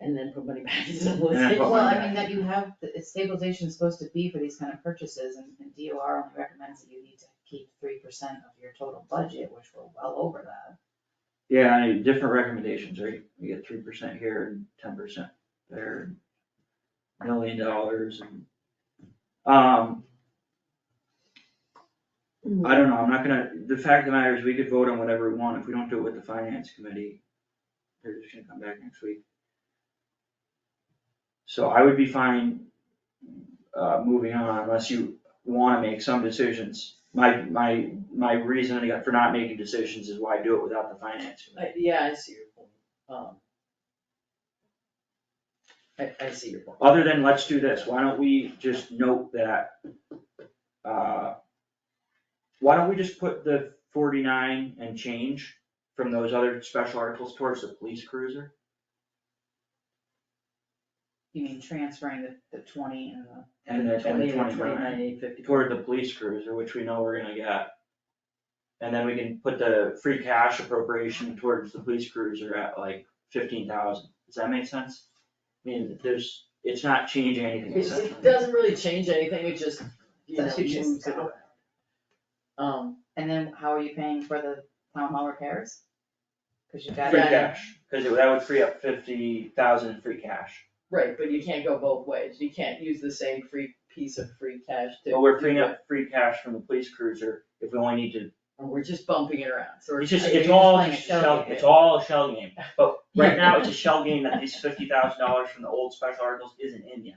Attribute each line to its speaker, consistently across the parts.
Speaker 1: and then put money back into the
Speaker 2: Yeah,
Speaker 1: list.
Speaker 2: well,
Speaker 3: Well, I mean, that you have, the stabilization is supposed to be for these kind of purchases, and and DOR only recommends that you need to keep three percent of your total budget, which we're well over that.
Speaker 2: Yeah, I need different recommendations, right? We get three percent here and ten percent there, and million dollars and, um. I don't know, I'm not gonna, the fact of the matter is, we could vote on whatever we want, if we don't do it with the finance committee, they're just gonna come back next week. So I would be fine, uh, moving on unless you wanna make some decisions. My, my, my reasoning for not making decisions is why do it without the finance committee.
Speaker 1: I- Yeah, I see your point, um. I, I see your point.
Speaker 2: Other than, let's do this, why don't we just note that, uh, why don't we just put the forty-nine and change from those other special articles towards the police cruiser?
Speaker 3: You mean transferring the, the twenty and the,
Speaker 2: And then
Speaker 1: Twenty,
Speaker 2: twenty,
Speaker 1: twenty-nine,
Speaker 2: twenty-nine,
Speaker 1: eight fifty.
Speaker 2: toward the police cruiser, which we know we're gonna get. And then we can put the free cash appropriation towards the police cruiser at like fifteen thousand, does that make sense? I mean, there's, it's not changing anything
Speaker 1: It,
Speaker 2: essentially.
Speaker 1: it doesn't really change anything, it just, you know,
Speaker 3: That's what you
Speaker 1: moves it
Speaker 3: said.
Speaker 1: around. Um,
Speaker 3: and then how are you paying for the town hall repairs? Cause you got
Speaker 2: Free
Speaker 1: Yeah.
Speaker 2: cash, cause it- that would free up fifty thousand in free cash.
Speaker 1: right, but you can't go both ways, you can't use the same free, piece of free cash to.
Speaker 2: But we're
Speaker 1: do
Speaker 2: freeing
Speaker 1: what-
Speaker 2: up free cash from the police cruiser if we only need to,
Speaker 1: and we're just bumping it around, so. we're-
Speaker 2: it's just,
Speaker 1: I
Speaker 2: it's
Speaker 1: think-
Speaker 2: all
Speaker 3: playing a
Speaker 2: just a
Speaker 3: shell
Speaker 2: shell,
Speaker 3: game.
Speaker 2: it's all a shell game. But right now, it's a shell game that these fifty thousand dollars from the old special articles isn't in yet.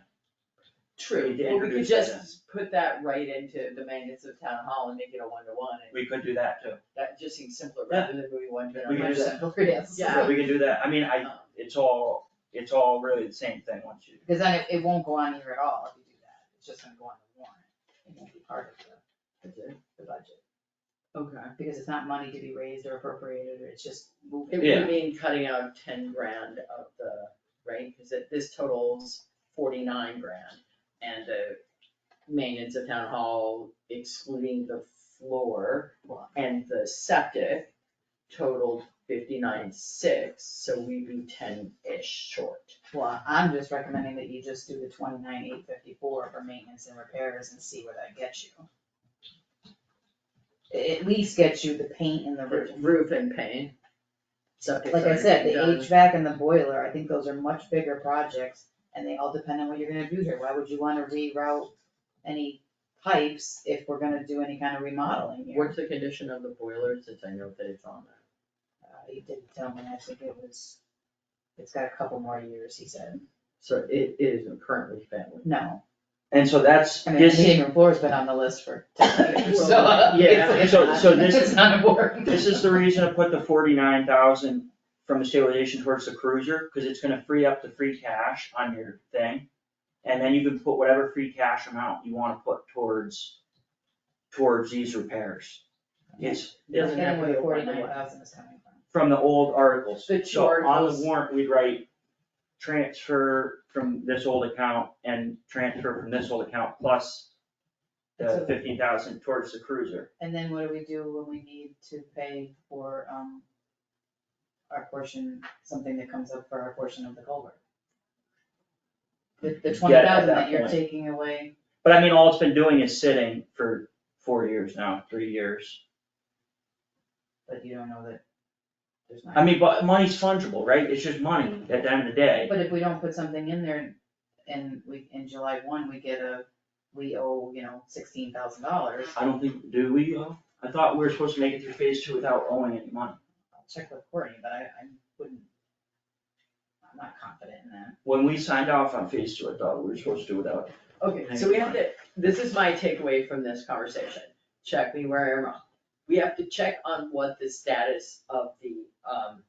Speaker 1: True,
Speaker 2: We did
Speaker 1: but we could
Speaker 2: introduce that
Speaker 1: just put that right into the maintenance of town hall and make it a one-to-one, and
Speaker 2: We could do that too.
Speaker 1: that just seems simpler
Speaker 2: Yeah.
Speaker 1: rather than moving one to
Speaker 2: We
Speaker 1: another.
Speaker 2: can do that.
Speaker 3: Yes.
Speaker 1: Yeah.
Speaker 2: We can do that. I mean, I,
Speaker 1: Um,
Speaker 2: it's all, it's all really the same thing once you,
Speaker 3: Because then it, it won't go on here at all if you do that, it's just gonna go on the warrant, it won't be part of the, the, the budget.
Speaker 1: Okay.
Speaker 3: Because it's not money to be raised or appropriated, or it's just moving.
Speaker 1: It
Speaker 2: Yeah.
Speaker 1: would mean cutting out ten grand of the, right, cause it, this totals forty-nine grand. And the maintenance of town hall excluding the floor and the septic totaled fifty-nine six, so we'd be ten-ish short.
Speaker 3: Well, I'm just recommending that you just do the twenty-nine, eight fifty-four for maintenance and repairs and see where that gets you. A- At least gets you the paint and the roof.
Speaker 1: Roof and paint, septic.
Speaker 3: Like I said, the HVAC and the boiler, I think those are much bigger projects, and they all depend on what you're gonna do here, why would you wanna reroute any pipes if we're gonna do any kind of remodeling here?
Speaker 1: What's the condition of the boiler, since I know that it's on there?
Speaker 3: Uh, he did tell me, I think it was, it's got a couple more years, he said,
Speaker 1: So it, it isn't currently family.
Speaker 3: no,
Speaker 2: and so that's,
Speaker 3: I mean, the
Speaker 2: this,
Speaker 3: heating room floor's been on the list for ten years, so.
Speaker 1: Well, yeah.
Speaker 3: it's- it's
Speaker 2: So-
Speaker 3: not-
Speaker 2: so this-
Speaker 3: It's not important.
Speaker 2: this is the reason to put the forty-nine thousand from the stabilization towards the cruiser, cause it's gonna free up the free cash on your thing. And then you can put whatever free cash amount you wanna put towards, towards these repairs. It's
Speaker 1: It doesn't have
Speaker 3: Getting
Speaker 1: to
Speaker 3: where
Speaker 1: go
Speaker 3: the
Speaker 1: one to one.
Speaker 3: forty-nine thousand is coming from.
Speaker 2: from the old articles.
Speaker 1: The two
Speaker 2: So on
Speaker 1: articles.
Speaker 2: the warrant, we'd write transfer from this old account and transfer from this old account plus the
Speaker 3: So-
Speaker 2: fifteen thousand towards the cruiser.
Speaker 3: And then what do we do when we need to pay for, um, our portion, something that comes up for our portion of the culvert? The, the twenty
Speaker 2: that
Speaker 3: thousand that you're
Speaker 2: point.
Speaker 3: taking away,
Speaker 2: But I mean, all it's been doing is sitting for four years now, three years.
Speaker 3: but you don't know that there's not.
Speaker 2: I mean, but money's fungible, right? It's just money at the end of the day.
Speaker 3: But if we don't put something in there and we, in July one, we get a, we owe, you know, sixteen thousand dollars,
Speaker 2: I don't think, do we, owe? I thought we were supposed to make it through phase two without owing any money.
Speaker 3: I'll check with Courtney, but I, I wouldn't. I'm not confident in that.
Speaker 2: When we signed off on phase two, I thought we were supposed to do without.
Speaker 1: Okay, so we have to, this is my takeaway from this conversation, check me where I'm wrong. We have to check on what the status of the, um,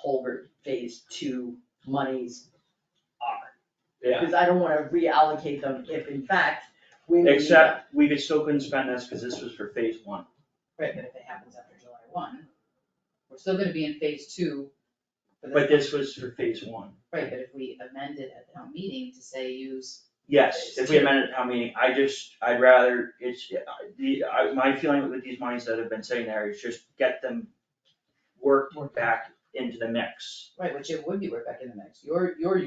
Speaker 1: culvert phase two monies are. Because I don't wanna reallocate them if in fact we may need them.
Speaker 2: Except, we could still couldn't spend this, cause this was for phase one.
Speaker 3: Right. But if it happens after July one, we're still gonna be in phase two. for the-
Speaker 2: But this was for phase one.
Speaker 3: Right, but if we amend it at town meeting to say use,
Speaker 2: Yes, if we amended town meeting, I just, I'd rather, it's, I- the, I, my feeling with these monies that have been sitting there is just get them worked back into the mix.
Speaker 3: right, which it would be right back in the mix, you're, you're